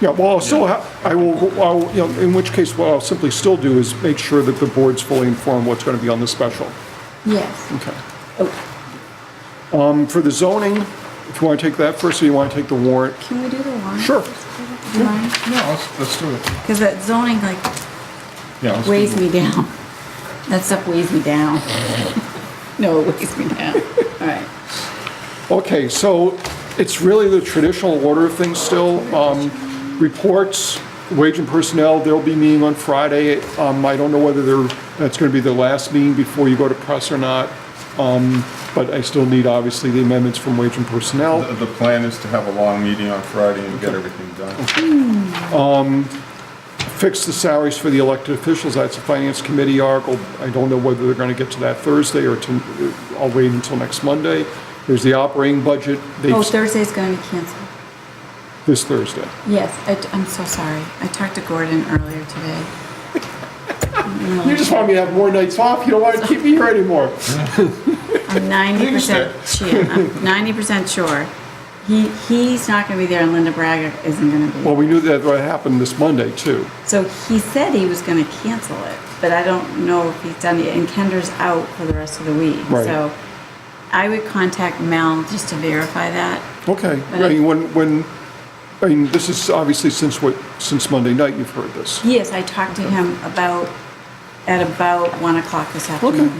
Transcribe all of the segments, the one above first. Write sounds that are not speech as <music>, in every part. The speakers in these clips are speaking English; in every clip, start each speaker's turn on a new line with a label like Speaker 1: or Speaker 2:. Speaker 1: Yeah, well, I'll still, ha- I will, I'll- you know, in which case, what I'll simply still do is make sure that the board's fully informed what's going to be on the special.
Speaker 2: Yes.
Speaker 1: Okay.
Speaker 2: Oh,
Speaker 1: Um, For the zoning, if you want to take that first, or you want to take the warrant?
Speaker 2: can we do the warrant?
Speaker 1: Sure.
Speaker 2: Because
Speaker 3: No, let's, let's do it.
Speaker 2: that zoning like
Speaker 3: Yeah, let's do
Speaker 2: weighs
Speaker 3: it.
Speaker 2: me down. That stuff weighs me down. <laughs> No, it weighs me down. All right.
Speaker 1: Okay, so it's really the traditional order of things still. Um, Reports, wage and personnel, they'll be meeting on Friday. Um, I don't know whether they're, that's going to be the last meeting before you go to press or not, Um, but I still need, obviously, the amendments from wage and personnel.
Speaker 3: The the plan is to have a long meeting on Friday and get everything done.
Speaker 1: Fix the salaries for the elected officials, that's a finance committee article. I don't know whether they're going to get to that Thursday or to, I'll wait until next Monday. There's the operating budget,
Speaker 2: Oh,
Speaker 1: they've,
Speaker 2: Thursday's going to be canceled.
Speaker 1: this Thursday.
Speaker 2: Yes, I, am so sorry. I talked to Gordon earlier today. I'm
Speaker 1: You
Speaker 2: really-
Speaker 1: just want me to have more nights off, you don't want to keep me here anymore.
Speaker 2: I'm ninety percent sure. I'm ninety percent sure. He, he's not going to be there and Linda Braga isn't going to be.
Speaker 1: Well, we knew that what happened this Monday, too.
Speaker 2: So he said he was going to cancel it, but I don't know if he's done it. And Kendra's out for the rest of the week.
Speaker 1: Right.
Speaker 2: So I would contact Mel just to verify that.
Speaker 1: Okay, I mean, when, when, I mean, this is obviously since what, since Monday night you've heard this.
Speaker 2: Yes, I talked to him about, at about 1 o'clock this afternoon.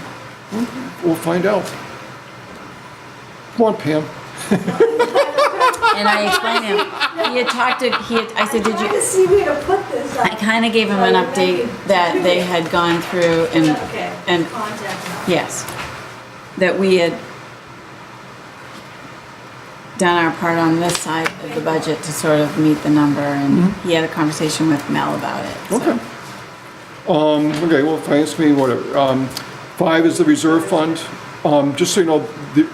Speaker 1: We'll find out. Come on, Pam.
Speaker 2: And I explained him, he had talked to, he had, I said, did
Speaker 4: Trying to
Speaker 2: you?
Speaker 4: see where to put this. Oh,
Speaker 2: I kind of gave him an update that they had gone through and,
Speaker 4: Okay.
Speaker 2: and
Speaker 4: Contact.
Speaker 2: Yes. That we had done our part on this side of the budget to sort of meet the number, and he had a conversation with Mel about it. so.
Speaker 1: Okay. Um, okay, well, finance me, whatever. Um, five is the reserve fund. Um, just so you know, the,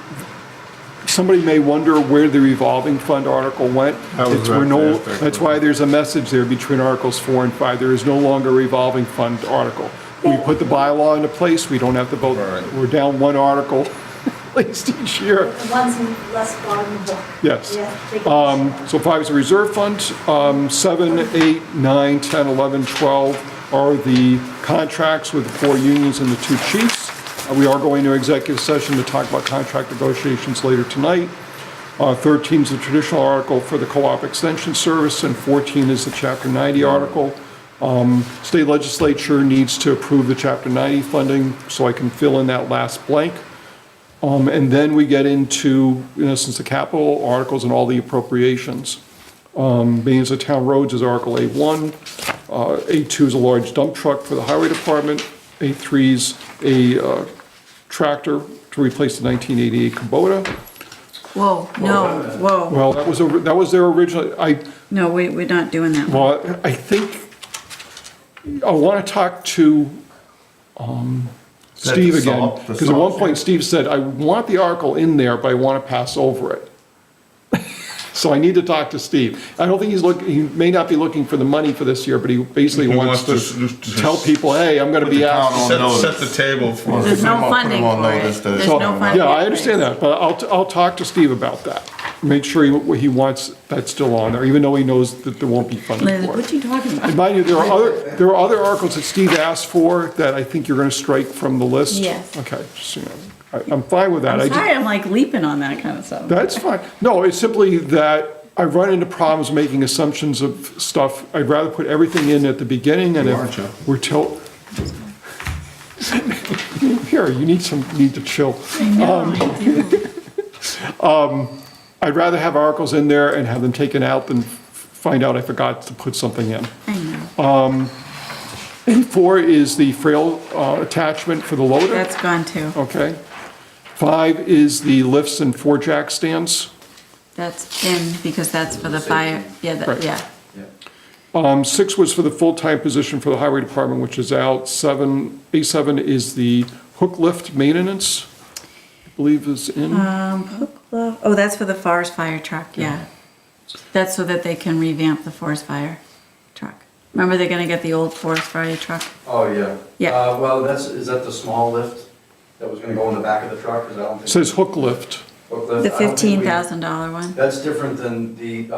Speaker 1: somebody may wonder where the revolving fund article went.
Speaker 3: That was
Speaker 1: It's- we're no-
Speaker 3: that fast,
Speaker 1: That's why there's a message there between Articles four and five. There is no longer a revolving fund article. We put the bylaw into place, we don't have to vote.
Speaker 3: Right.
Speaker 1: We're down one article, <laughs> at least each year.
Speaker 4: The ones in less vulnerable.
Speaker 1: Yes.
Speaker 4: Yeah, they can-
Speaker 1: Um, So five is the reserve fund. Um, Seven, eight, nine, 10, 11, 12 are the contracts with the four unions and the two chiefs. Uh, We are going to executive session to talk about contract negotiations later tonight. Uh, 13 is the traditional article for the co-op extension service, and 14 is the Chapter 90 article. Um, State legislature needs to approve the Chapter 90 funding, so I can fill in that last blank. Um, And then we get into, in essence, the capital articles and all the appropriations. Um, Being as a town roads is Article A1, uh, A2 is a large dump truck for the highway department, A3 is a uh, tractor to replace the 1988 Kubota.
Speaker 2: Whoa, no, whoa,
Speaker 1: uh, Well, that was, over- that was their original, I,
Speaker 2: no, we, we're not doing that. one.
Speaker 1: well, I think, I want to talk to um,
Speaker 3: that
Speaker 1: Steve
Speaker 3: the
Speaker 1: again,
Speaker 3: salt- the
Speaker 1: because at one
Speaker 3: salt
Speaker 1: point Steve said, I want the article in there, but I want to pass over it. So I need to talk to Steve. I don't think he's looking, he may not be looking for the money for this year, but he basically
Speaker 5: He
Speaker 1: wants
Speaker 5: wants
Speaker 1: to
Speaker 5: to- to-
Speaker 1: tell people, hey, I'm going to be out.
Speaker 5: on notice.
Speaker 3: Set, set the table for.
Speaker 2: There's no
Speaker 3: Put
Speaker 2: funding
Speaker 3: them on
Speaker 2: for it.
Speaker 3: notice that-
Speaker 2: There's
Speaker 1: So,
Speaker 2: no funding.
Speaker 1: Yeah, I understand that, but I'll, I'll talk to Steve about that. Make sure he- he wants that still on there, even though he knows that there won't be funding for it.
Speaker 2: Liz, what are you talking about?
Speaker 1: And mind you, there are other, there are other articles that Steve asked for that I think you're gonna strike from the list.
Speaker 2: Yes.
Speaker 1: Okay, just, you know, I, I'm fine with that. <laughs> I
Speaker 2: I'm
Speaker 1: just-
Speaker 2: sorry, I'm like leaping on that kind of stuff.
Speaker 1: That's fine. No, it's simply that I run into problems making assumptions of stuff. I'd rather put everything in at the beginning and
Speaker 3: You are, Joe.
Speaker 1: if we're till. Here, you need some, you need to chill. Um, <laughs> I'd rather have articles in there and have them taken out than find out I forgot to put something in.
Speaker 2: I know,
Speaker 1: Four is the frail uh, attachment for the loader,
Speaker 2: that's gone too.
Speaker 1: okay? Five is the lifts and four jack stands.
Speaker 2: That's in, because that's for the fire, yeah,
Speaker 1: Right.
Speaker 2: that, yeah.
Speaker 1: Um, Six was for the full-time position for the highway department, which is out. Seven, A7 is the hook lift maintenance, I believe is in.
Speaker 2: Um, hook love, oh, that's for the forest fire truck, yeah. That's so that they can revamp the forest fire truck. Remember, they're gonna get the old forest fire truck?
Speaker 6: Oh, yeah.
Speaker 2: Yeah.
Speaker 6: Uh, Well, that's, is that the small lift that was gonna go in the back of the truck, because I don't think.
Speaker 1: Says hook lift.
Speaker 6: Hook lift,
Speaker 2: The
Speaker 6: Uh, I don't think we-
Speaker 2: fifteen thousand dollar one?
Speaker 6: That's different than the uh,